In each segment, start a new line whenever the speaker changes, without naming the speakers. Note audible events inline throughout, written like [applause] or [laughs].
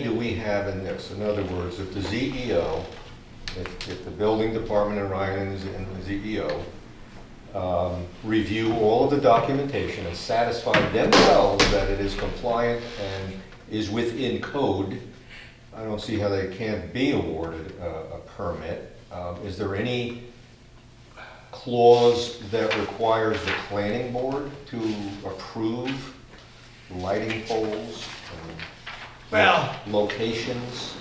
do we have in this? In other words, if the E ZEO, if, if the building department and Ryan and the- and the ZEO um, review all of the documentation and satisfy themselves that it is compliant and is within code, I don't see how they can't be awarded a, a permit. Um, Is there any clause that requires the planning board to approve lighting poles and
Well,
locations.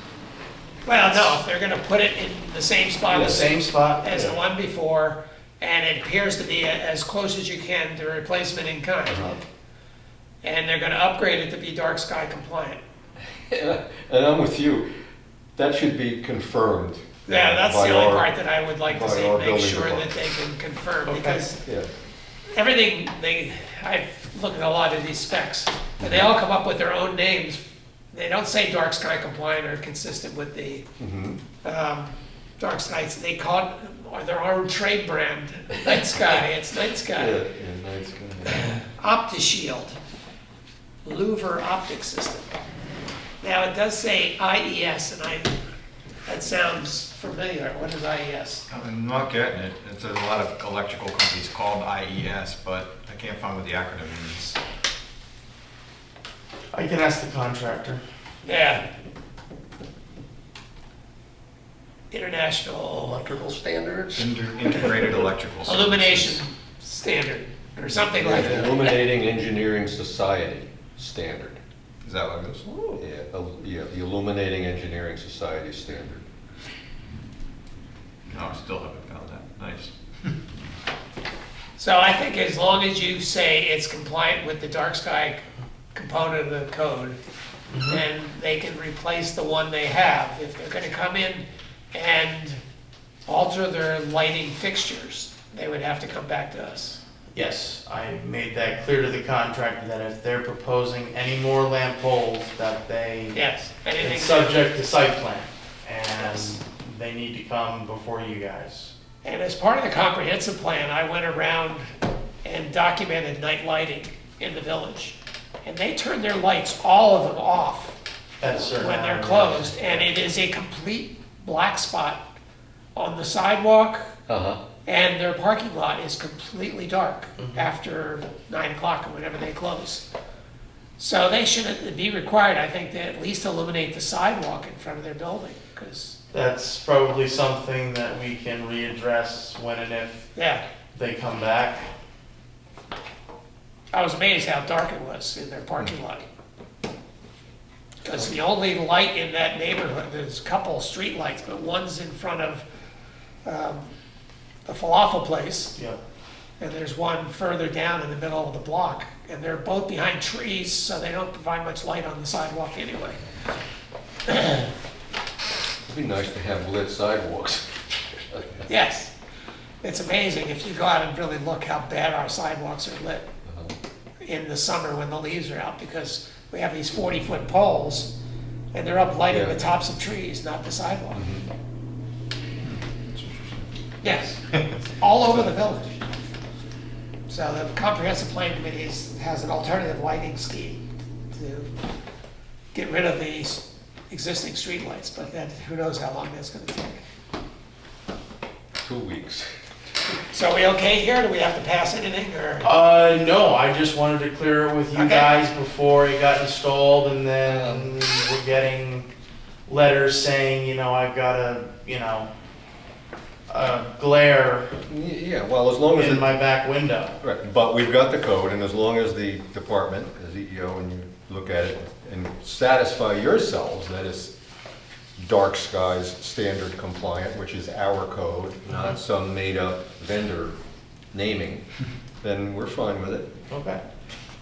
well, no, if they're gonna put it in the same spot
The
as,
same spot?
as the one before, and it appears to be a- as close as you can to replacement in kind. And they're gonna upgrade it to be dark sky compliant.
And I'm with you, that should be confirmed.
Yeah, that's
by
the only
our-
part that I would like
by
to say,
our
make
building
sure that
department.
they can confirm,
Okay.
because
Yeah,
everything, they, I've looked at a lot of these specs, and they all come up with their own names. They don't say dark sky compliant or consistent with the,
mhm.
um, dark skies. They call it, or their own trade brand, night sky. It's night
yeah,
sky.
yeah, nice, [laughs] yeah.
OptiShield, Louver optic system. Now it does say IES, and I that sounds familiar. What is E IES?
I'm not getting it. It's a lot of electrical companies called IES, but I can't find what the acronym means.
I can ask the contractor.
Yeah. International
Electrical standards?
Inter- Integrated electrical. Services.
illumination standard or something like that.
Illuminating Engineering Society standard.
Is that what it is?
Yeah, il- yeah, the Illuminating Engineering Society standard.
No, I still haven't found that. Nice.
So I think as long as you say it's compliant with the dark sky component of the code,
Mm-hmm.
then they can replace the one they have. If they're gonna come in and alter their lighting fixtures, they would have to come back to us.
Yes, I made that clear to the contractor that if they're proposing any more lamp poles, that they,
Yes,
it's
anything,
subject to site plan. And they need to come before you guys.
and as part of the comprehensive plan, I went around and documented night lighting in the village. And they turned their lights, all of them off
at a certain
when they're
hour.
closed, and it is a complete black spot on the sidewalk,
Uh-huh.
and their parking lot is completely dark after nine o'clock or whenever they close. So they should be required, I think, to at least illuminate the sidewalk in front of their building, because,
That's probably something that we can readdress when and if
yeah,
they come back.
I was amazed how dark it was in their parking lot. Because the only light in that neighborhood, there's a couple of streetlights, but one's in front of um, the falafel place,
Yep.
And there's one further down in the middle of the block, and they're both behind trees, so they don't provide much light on the sidewalk anyway.
It'd be nice to have lit sidewalks. [laughs]
Yes, it's amazing if you go out and really look how bad our sidewalks are lit in the summer when the leaves are out, because we have these forty-foot poles, and they're up lighting the
Yeah.
tops of trees, not the sidewalk. Yes, all over the village. So the comprehensive plan committee is- has an alternative lighting scheme to get rid of these existing streetlights, but then who knows how long that's gonna take.
Two weeks.
So are we okay here? Do we have to pass anything or?
Uh, no, I just wanted to clear it with you
Okay.
guys before it got installed, and then we're getting letters saying, you know, I've got a, you know, a glare
Y- Yeah, well, as long as.
in
Oh, it-
my back window.
Right, but we've got the code, and as long as the department, the CEO, and you look at it and satisfy yourselves that it's dark skies standard compliant, which is our code,
Uh-huh.
not some made-up vendor
[laughs]
naming, then we're fine with it.
Okay.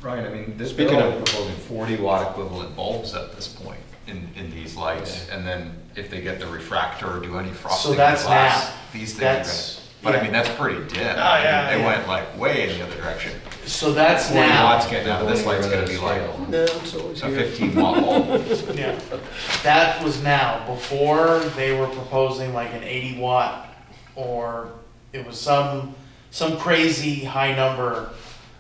Right, I mean, this
Speaking
bill
of-
proposing 40 watt equivalent bulbs at this point in, in these lights. And then if they get the refractor or do any frosting in
that's
glass,
now.
these things are
That's-
gonna. But
yeah.
I mean, that's pretty dim. Oh,
yeah,
They
yeah.
went like way in the other direction.
So that's
40 watts
now.
getting out of this light's gonna be like a 15 watt bulb.
Yeah. That was now. Before they were proposing like an 80 watt, or it was some some crazy high number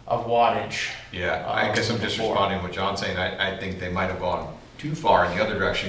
of wattage.
Yeah, I guess I'm just
Before.
responding to what John's saying. I, I think they might have gone too far in the other direction